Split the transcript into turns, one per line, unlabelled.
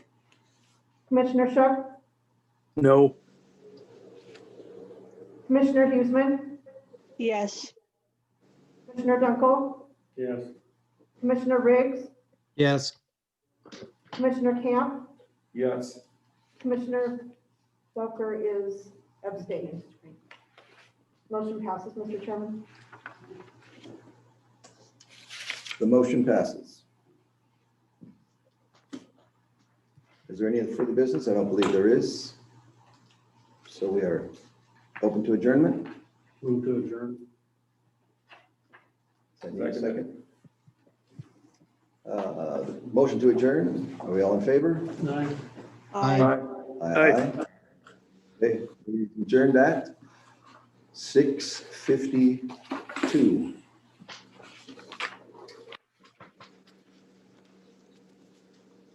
Commissioner Shook,
No.
Commissioner Hughesman,
Yes,
Commissioner Dunkel,
Yes.
Commissioner Riggs,
yes,
Commissioner Camp,
Yes.
Commissioner Zucker is abstaining. Motion passes, Mr. Chairman.
The motion passes. Is there any further business? I don't believe there is. So we are open to adjournment.
Move to adjourn.
Does that need a Second. Uh, Motion to adjourn. Are we all in favor?
Aye.
Aye.
I
Aye.
Okay, we adjourned at 6:52.